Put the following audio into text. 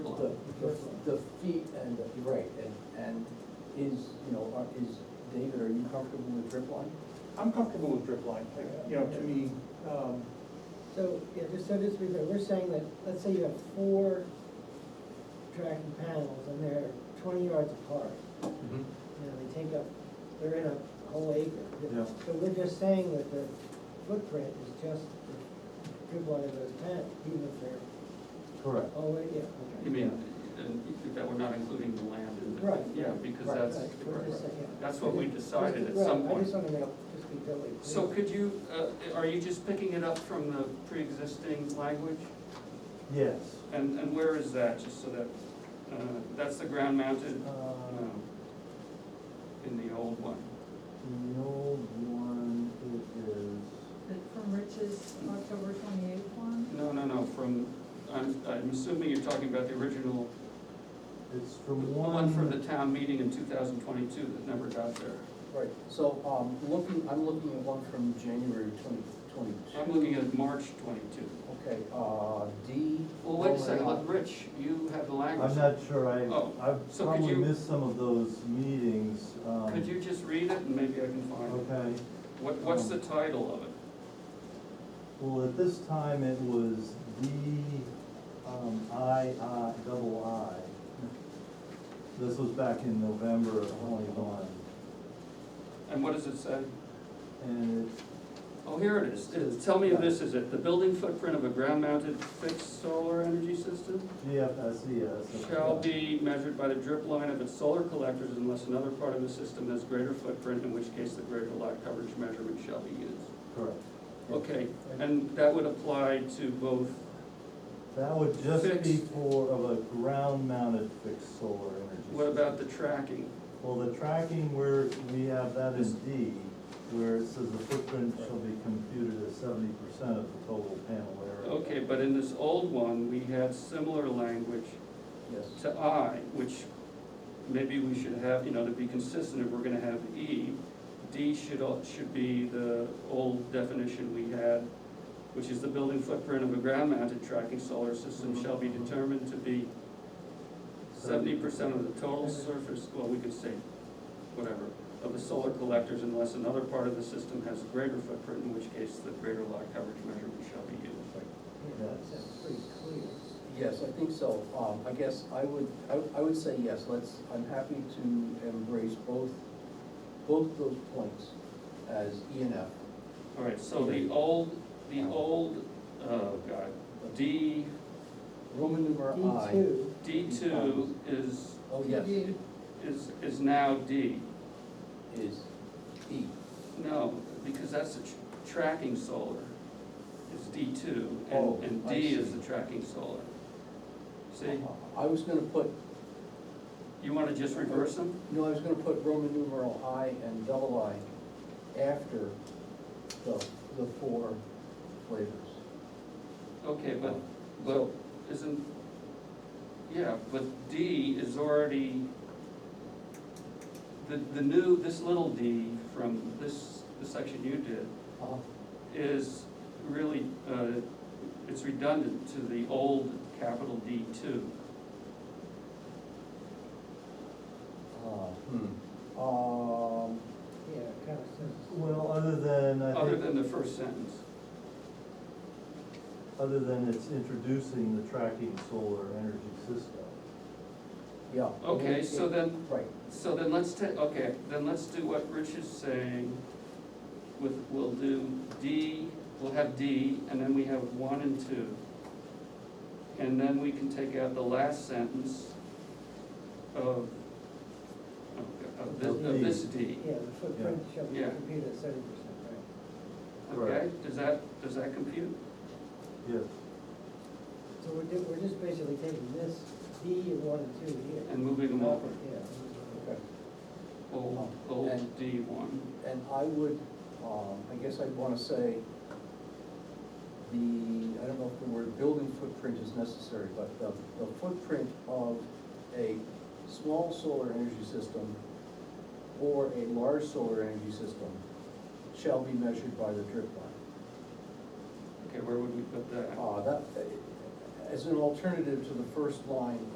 the, the, the feet and, the- you're right, and, and is, you know, are- is, David, are you comfortable with drip line? I'm comfortable with drip line, you know, to me, um, So, yeah, just so this, we know, we're saying that, let's say you have four tracking panels and they're twenty yards apart. Mm-hmm. You know, they take up, they're in a whole acre. Yeah. So we're just saying that the footprint is just the good one of those panels, even if they're Correct. all, yeah, okay. You mean, and if that we're not including the land in the. Right. Yeah, because Right, that's, right, we're just saying, yeah. that's what we decided at Right, some I point. just wanna make, just be totally clear. So could you, uh, are you just picking it up from the pre-existing language? Yes. And, and where is that, just so that, uh, that's the ground Uh, mounted, Uh, Um, um, in the old one? The old one, it is, From Rich's October twenty-eighth one? No, no, no, from, I'm, I'm assuming you're talking about the original, it's the from one. one from the town meeting in two thousand twenty-two that never got there. Right, so, um, looking, I'm looking at one from January twenty, twenty-two. I'm looking at March twenty-two. Okay, uh, D. Well, wait a second, Roman look, Rich, you have the Oh I'm language. not sure, I, Oh, I've so could probably you- missed some of those meetings. um, Could you just read it and maybe I can find it? Okay, What, what's the title of it? well, at this time, it was D, um, I, I, double I. This was back in November of twenty-one, And what does it say? and it, Oh, here it is. It- Tell me if this is it. The building footprint of a ground-mounted fixed solar energy system GFSES. shall be measured by the drip line of its solar collectors unless another part of the system has greater footprint, in which case the greater lot coverage measurement shall be used. Correct. Okay, and that would apply to both, That would just be Fixed. for, of a ground-mounted fixed solar energy. what system. about the tracking? Well, the tracking where we have that in D, where it says the footprint shall be computed as seventy percent of the total panel area. Okay, but in this old one, we had similar language Yes, to I, which maybe we should have, you know, to be consistent, if we're gonna have E, D should, al- should be the old definition we had, which is the building footprint of a ground-mounted tracking solar system shall be determined to be Mm-hmm. seventy percent of the total surface, well, we could say, whatever, of the solar collectors unless another part of the system has a greater footprint, in which case the greater lot coverage measurement shall be used. Yeah, that's pretty clear. yes, I think so. Um, I guess I would, I, I would say yes, let's, I'm happy to embrace both, both those points as E and F. All right, so the old, the old, oh god, D, Roman D numeral I. two, D two is, Oh, yes, You- is, is now D. is E. No, because that's the tr- tracking solar, it's D two, Oh, and, and I D is see. Uh-huh. the tracking solar. See, Uh, I was gonna put, you wanna just reverse them? no, I was gonna put Roman numeral I and double I after the, the four flavors. Okay, but, Uh-huh. but isn't, yeah, but D is already, the, the new, this little D from this, the section you did, Uh-huh. is really, uh, it's redundant to the old capital D two. Uh, hmm. Um, yeah, kind of says. Well, other than, I Other think, than the first sentence, other than it's introducing the tracking solar energy system. yeah. okay, so then, Right, So then let's ta, okay, then let's do what Rich is saying with, we'll do D, we'll have D, and then we have one and two. And then we can take out the last sentence of, of- of this, of this D, Yeah, the footprint shall be Yeah. computed at seventy percent, right? okay? Does that, does that compute? Yes, So we're, di- we're just basically taking this D and one and two here. And moving them over, Yeah. okay. old, old D one. And I would, um, I guess I'd wanna say the, I don't know if the word building footprint is necessary, but the, the footprint of a small solar energy system or a large solar energy system shall be measured by the drip line. Okay, where would we put that? Uh, that, as an alternative to the first line